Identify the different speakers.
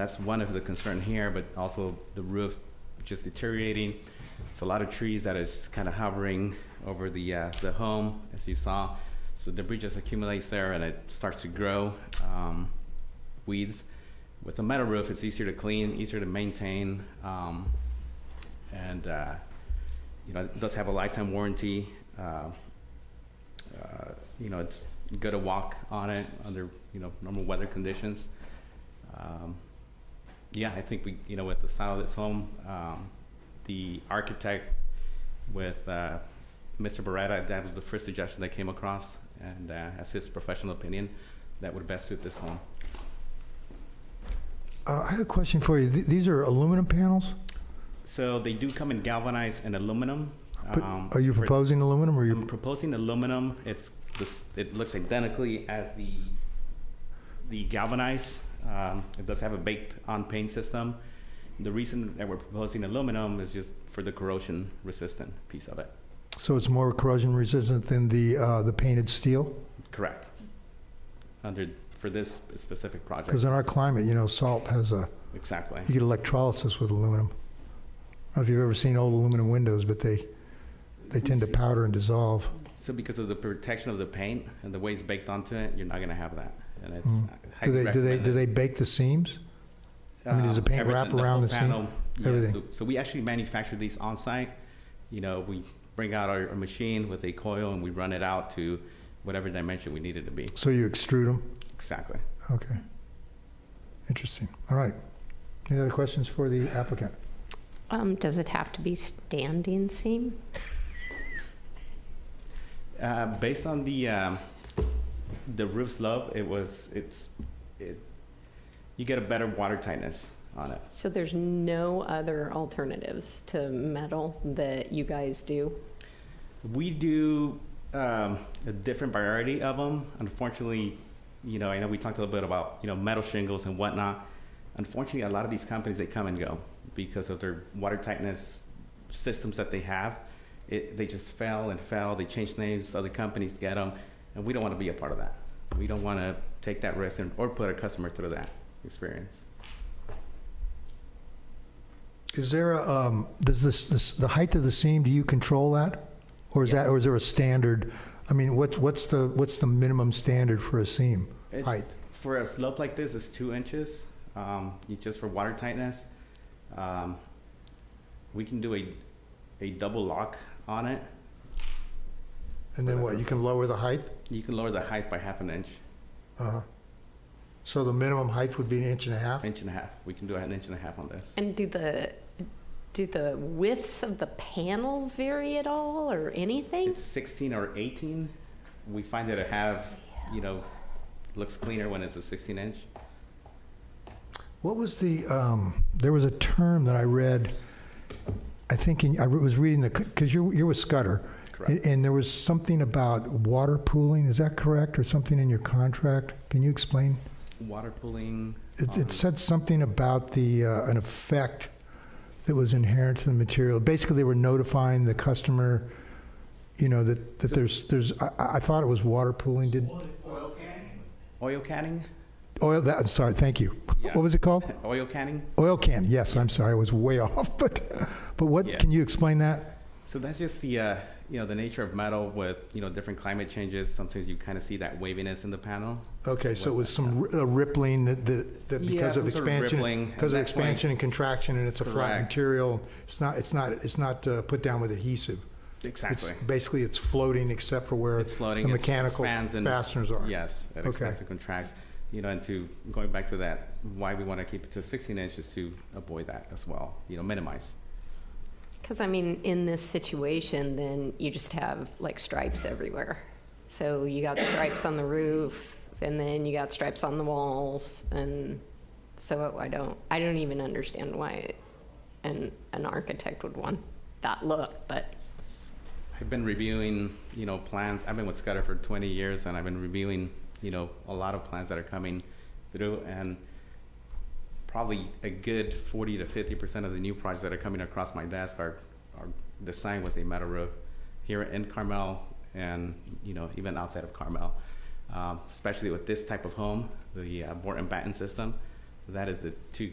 Speaker 1: That's one of the concern here, but also the roof just deteriorating. It's a lot of trees that is kind of hovering over the, uh, the home, as you saw. So debris just accumulates there and it starts to grow, um, weeds. With a metal roof, it's easier to clean, easier to maintain, um, and, uh, you know, it does have a lifetime warranty. Uh, uh, you know, it's good to walk on it under, you know, normal weather conditions. Um, yeah, I think we, you know, with the style of this home, um, the architect with, uh, Mr. Beretta, that was the first suggestion that came across, and, uh, as his professional opinion, that would best suit this home.
Speaker 2: Uh, I had a question for you. Th- these are aluminum panels,
Speaker 1: So they do come in galvanized and aluminum.
Speaker 2: but
Speaker 1: um,
Speaker 2: are you
Speaker 1: for-
Speaker 2: proposing aluminum or
Speaker 1: I'm
Speaker 2: you?
Speaker 1: proposing aluminum. It's this, it looks identically as the, the galvanized. Um, it does have a baked on paint system. The reason that we're proposing aluminum is just for the corrosion resistant piece of it.
Speaker 2: So it's more corrosion resistant than the uh, the painted steel?
Speaker 1: Correct. Under, for this specific project.
Speaker 2: Because in our climate, you know, salt has a
Speaker 1: Exactly.
Speaker 2: you get electrolysis with aluminum. I don't know if you've ever seen old aluminum windows, but they they tend to powder and dissolve.
Speaker 1: So because of the protection of the paint and the way it's baked onto it, you're not gonna have that. And it's
Speaker 2: Mm. Do
Speaker 1: highly
Speaker 2: they do they do
Speaker 1: recommended.
Speaker 2: they bake the seams? I mean, does the
Speaker 1: Um,
Speaker 2: paint
Speaker 1: everything,
Speaker 2: wrap around
Speaker 1: whole
Speaker 2: the seam?
Speaker 1: panel, yeah,
Speaker 2: Everything.
Speaker 1: So, so we actually manufacture these on site. You know, we bring out our, our machine with a coil and we run it out to whatever dimension we need it to be.
Speaker 2: So you extrude them?
Speaker 1: Exactly.
Speaker 2: Okay. Interesting. All right. Any other questions for the applicant?
Speaker 3: Um, does it have to be standing seam?
Speaker 1: Uh, based on the um, the roof slope, it was it's it you get a better water tightness on it.
Speaker 3: So there's no other alternatives to metal that you guys do?
Speaker 1: We do um, a different variety of them. Unfortunately, you know, I know we talked a little bit about you know metal shingles and whatnot. Unfortunately, a lot of these companies they come and go because of their water tightness systems that they have. It, they just fail and fail. They change names. Other companies get them, and we don't want to be a part of that. We don't want to take that risk and, or put a customer through that experience.
Speaker 2: Is there a, um, does this, this, the height of the seam, do you control that? Or is that, or is there a standard? I mean, what's, what's the, what's the minimum standard for a seam
Speaker 1: It-
Speaker 2: height?
Speaker 1: For a slope like this, it's two inches, um, you- just for water tightness. Um, we can do a, a double lock on it.
Speaker 2: And then what, you can lower the height?
Speaker 1: You can lower the height by half an inch,
Speaker 2: Uh-huh. So the minimum height would be an inch and a half?
Speaker 1: inch and a half. We can do an inch and a half on this.
Speaker 3: And do the, do the widths of the panels vary at all or anything?
Speaker 1: It's sixteen or eighteen. We find that it have, you know, looks cleaner when it's a sixteen inch.
Speaker 2: What was the, um, there was a term that I read, I think, in- I was reading the, because you're, you're with Scudder.
Speaker 1: Correct.
Speaker 2: And there was something about water pooling, is that correct? Or something in your contract? Can you explain?
Speaker 1: Water pooling. um,
Speaker 2: It,
Speaker 1: on-
Speaker 2: it said something about the, uh, an effect that was inherent to the material. Basically, they were notifying the customer, you know, that, that
Speaker 1: So-
Speaker 2: there's, there's, I- I, I thought it was water pooling, did,
Speaker 1: Oil canning? Oil canning?
Speaker 2: oil, that, sorry, thank you.
Speaker 1: Yeah.
Speaker 2: What was it called?
Speaker 1: Oil canning?
Speaker 2: Oil can, yes, I'm sorry, I was way off, but, but
Speaker 1: Yeah.
Speaker 2: what, can you explain that?
Speaker 1: So that's just the, uh, you know, the nature of metal with, you know, different climate changes. Sometimes you kind of see that waviness in the panel.
Speaker 2: Okay, so it was some r- uh, rippling that, that that
Speaker 1: Yeah,
Speaker 2: because of
Speaker 1: some sort of
Speaker 2: expansion,
Speaker 1: rippling, and
Speaker 2: because of
Speaker 1: that's why-
Speaker 2: expansion and contraction, and it's a flat
Speaker 1: Correct.
Speaker 2: material, it's not, it's not, it's not uh, put down with adhesive.
Speaker 1: Exactly.
Speaker 2: It's basically, it's floating except for where
Speaker 1: It's floating,
Speaker 2: the
Speaker 1: it's-
Speaker 2: mechanical
Speaker 1: expands and-
Speaker 2: fasteners are.
Speaker 1: Yes, it
Speaker 2: Okay.
Speaker 1: expands and contracts. You know, and to, going back to that, why we want to keep it to 16 inches to avoid that as well, you know, minimize.
Speaker 3: Because I mean, in this situation, then you just have like stripes everywhere. So you got stripes on the roof, and then you got stripes on the walls, and so I don't, I don't even understand why an an architect would want that look. But
Speaker 1: I've been reviewing, you know, plans. I've been with Scudder for 20 years, and I've been reviewing, you know, a lot of plans that are coming through, and probably a good 40 to 50 percent of the new projects that are coming across my desk are are designed with a metal roof here in Carmel, and you know, even outside of Carmel. Um, especially with this type of home, the uh, board and batten system, that is the two